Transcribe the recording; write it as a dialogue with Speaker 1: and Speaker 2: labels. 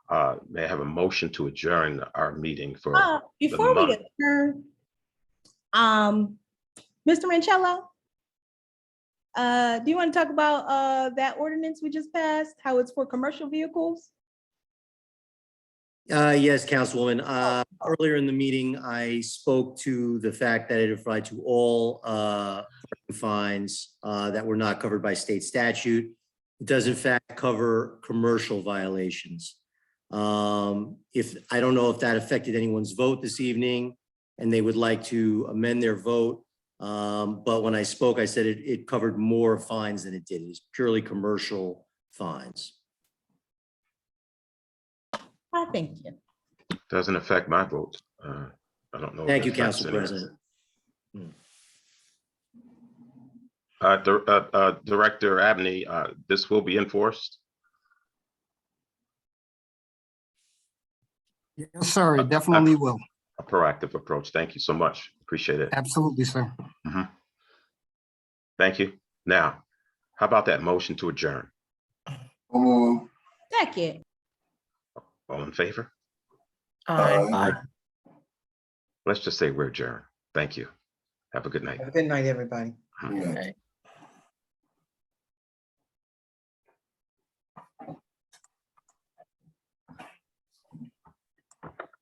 Speaker 1: uh, may I have a motion to adjourn our meeting for?
Speaker 2: Uh, Before we
Speaker 1: month.
Speaker 2: adjourn, um, Mr. Mancello, uh, do you want to talk about, uh, that ordinance we just passed, how it's for commercial vehicles?
Speaker 3: Uh, yes, Councilwoman, uh, earlier in the meeting, I spoke to the fact that it applied to all, uh, parking fines, uh, that were not covered by state statute. It does in fact cover commercial violations. Um, if, I don't know if that affected anyone's vote this evening and they would like to amend their vote. Um, but when I spoke, I said it, it covered more fines than it did. It's purely commercial fines.
Speaker 2: I thank you.
Speaker 1: Doesn't affect my vote. Uh, I don't know. if
Speaker 3: Thank
Speaker 1: it
Speaker 3: you,
Speaker 1: affects
Speaker 3: Council
Speaker 1: anyone.
Speaker 3: President.
Speaker 1: Uh, Dir- uh, uh, Director Abney, uh, this will be enforced.
Speaker 4: Yes, sir, it definitely will.
Speaker 1: A proactive approach. Thank you so much. Appreciate it.
Speaker 4: Absolutely, sir.
Speaker 1: Thank you. Now, how about that motion to adjourn?
Speaker 5: Como,
Speaker 2: Second,
Speaker 1: All in favor?
Speaker 6: Aye.
Speaker 1: Let's just say we're adjourned. Thank you. Have a good night. Mm-hmm.
Speaker 6: Have a good night, everybody.
Speaker 1: Uh,
Speaker 5: yeah.
Speaker 6: Okay.